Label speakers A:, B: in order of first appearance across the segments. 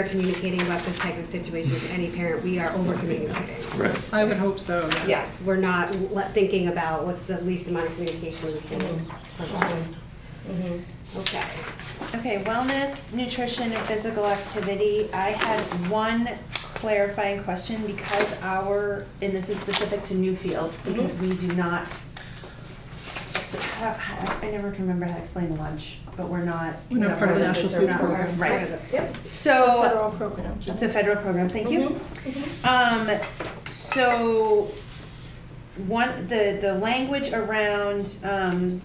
A: are communicating about this type of situation to any parent, we are over communicating.
B: Right.
C: I would hope so.
A: Yes, we're not le- thinking about what's the least amount of communication we can provide. Mm-hmm. Okay.
D: Okay, wellness, nutrition, and physical activity. I had one clarifying question because our, and this is specific to new fields,
C: Mhm.
D: because we do not, I never can remember how to explain the lunch, but we're not.
C: We're not part of the national
D: we're
C: food
D: not-
C: program.
D: Right.
A: Yep.
D: So,
E: Federal program.
D: It's a federal program, thank you.
C: Mm-hmm.
D: Um, so, one, the, the language around, um,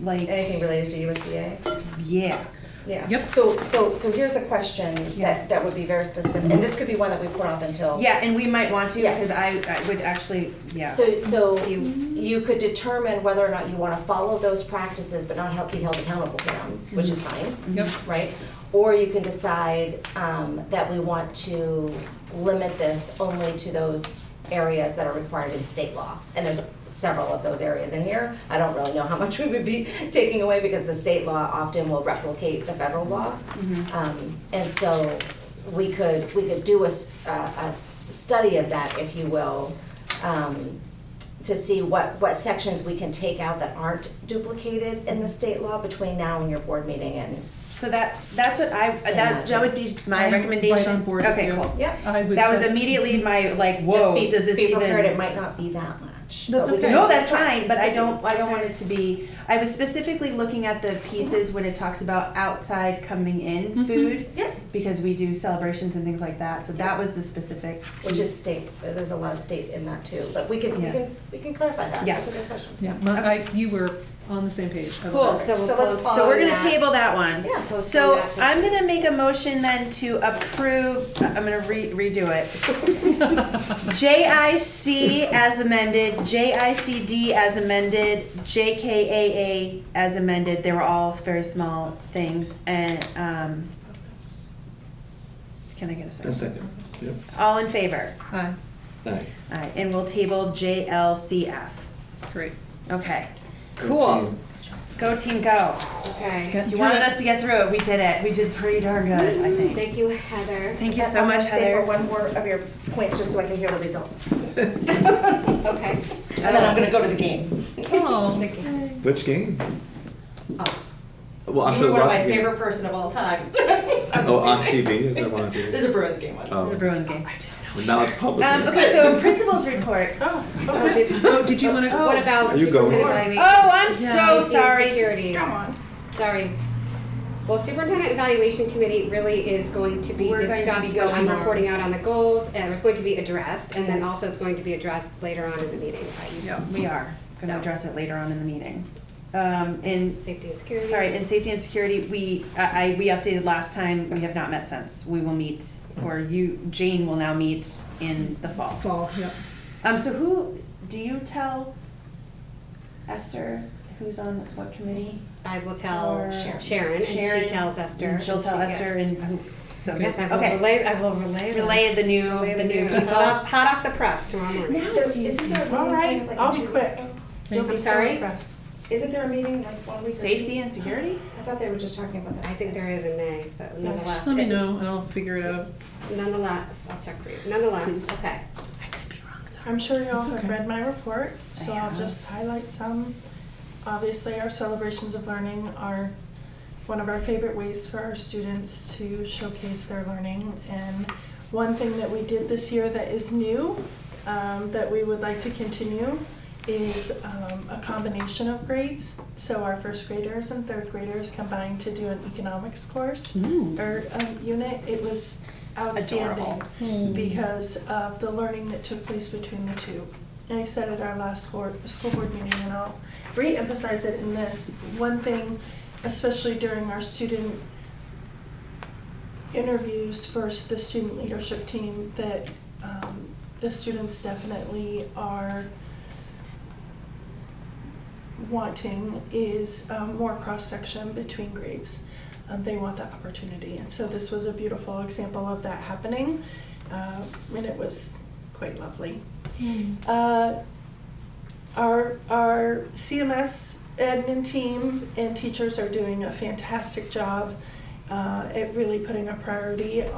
D: like,
E: Anything related to USDA?
D: yeah,
E: Yeah.
C: Yep.
E: So, so, so here's a question
D: Yeah.
E: that, that would be very specific, and this could be one that we put off until.
D: yeah, and we might want to,
E: Yeah.
D: because I, I would actually, yeah.
E: So, so
A: You-
E: you could determine whether or not you wanna follow those practices but not help, be held accountable to them, which is
D: Mm-hmm.
E: fine.
C: Yep.
E: Right? Or you can decide, um, that we want to limit this only to those areas that are required in state law. And there's several of those areas in here. I don't really know how much we would be taking away because the state law often will replicate the federal law. Um, and so we could, we could do a, s- a- a s- study of that, if you will, um, to see what, what sections we can take out that aren't duplicated in the state law between now and your board meeting and,
D: So that, that's what I, uh, that, that would be just my
C: I'm
D: recommendation.
C: Right on board with
D: Okay,
C: you.
D: cool.
E: Yep.
C: I would-
D: That was immediately my, like,
E: just
D: whoa,
E: be,
D: does this
E: be
D: even?
E: prepared, it might not be that much.
C: That's
E: but we
C: okay.
E: can-
D: No, that's fine, but I
E: It's-
D: don't, I don't want it to be, I was specifically looking at the pieces when it talks about outside coming
C: Mm-hmm.
D: in food.
E: Yep.
D: Because we do celebrations and things like that, so that was the specific.
E: Which is state,
D: piece.
E: there's a lot of state in that too, but we can, we
D: Yeah.
E: can, we can clarify that,
D: Yeah.
E: that's a good question.
C: Yeah, my, I, you were on the same page. I
D: Cool.
C: love it.
A: So we'll
E: So let's
A: close-
E: pause.
D: So we're gonna
A: close that.
D: table that one.
E: Yeah.
A: Close
D: So
A: that.
D: I'm gonna make a motion then to approve, I'm gonna re- redo it. JIC as amended, JICD as amended, JKAA as amended, they were all very small things, and, um, can I get a
B: A
D: second?
B: second. Yep.
D: All in favor?
C: Hi,
B: Aye.
D: Aye, and we'll table JLCF.
C: great.
D: Okay,
B: Go
D: cool.
B: team.
D: Go team, go.
A: Okay.
C: Got
D: You
C: through
D: wanted
C: it.
D: us to get through it. We did it. We did pretty darn good, I think.
A: Thank you, Heather.
D: Thank you
E: I'm
D: so
E: gonna
D: much,
E: stay for
D: Heather.
E: one more of your points, just so I can hear the result,
A: Okay.
E: and then I'm gonna go to the game.
C: Oh,
B: Which game? Well, I'm
F: Oh. You were
B: sure there's
F: one of
B: lots
F: my
B: of games.
F: favorite person of all time.
B: Oh, on TV? Is there one on TV?
F: There's a Bruins game one.
D: It's a
B: Oh,
D: Bruin game.
B: well, now it's public.
D: Um, okay, so principal's report. Oh,
A: Oh, did-
C: oh, did you want to?
A: What about?
B: Are you going?
A: superintendent evaluation?
D: Oh, I'm so
A: Yeah.
D: sorry.
A: Security. Sorry. Well, superintendent evaluation committee really is going to be
D: We're going to be
A: discussed when I'm
D: going on.
A: reporting out on the goals, and it's going to be addressed, and then
D: Yes.
A: also it's going to be addressed later on in the meeting by you.
C: Yeah.
D: We are going to
A: So.
D: address it later on in the meeting. Um, and
A: Safety and security.
D: sorry, in safety and security, we I, I we updated last time. We have not met since. We will meet, or you Jane will now meet in the fall.
C: Fall, yeah.
D: Um, so who do you tell Esther who's on what committee?
A: I will tell
D: Or-
A: Sharon, and she
D: Sharon,
A: tells Esther.
D: And she'll tell
A: Yes.
D: Esther and who, so.
A: Yes, I will
D: okay.
A: relay, I will relay. that.
D: Relay the new,
A: Relay
D: the new
A: news. Hot
D: people.
A: off- Hot off the press tomorrow morning.
E: There- Isn't there a meeting?
G: All right,
E: like, in
G: I'll be
E: two weeks,
G: quick.
E: though?
G: You'll
A: I'm
G: be so
A: sorry?
G: impressed.
E: Isn't there a meeting like one week? or two
D: Safety and security?
E: I thought they were just talking about that.
A: I think there is a May, but nonetheless.
C: Just let me know and I'll figure it out.
A: Nonetheless, I'll check for you. Nonetheless, okay.
G: I'm sure you all
C: It's
G: have
C: okay.
G: read my report, so
D: I
G: I'll
D: have.
G: just highlight some. Obviously, our celebrations of learning are one of our favorite ways for our students to showcase their learning. And one thing that we did this year that is new, um, that we would like to continue, is um, a combination of grades. So our first graders and third graders combined to do an economics course or um, unit. It was outstanding
D: Adorable.
C: Hmm. Mm.
G: because of the learning that took place between the two. And I said at our last school, school board meeting, and I'll re-emphasize it in this, one thing, especially during our student interviews for s- the student leadership team, that um, the students definitely are wanting is um, more cross-section between grades. Um, They want that opportunity, and so this was a beautiful example of that happening uh, and it was quite lovely. Uh, our our CMS admin team and teachers are doing a fantastic job. Um, uh, at really putting a priority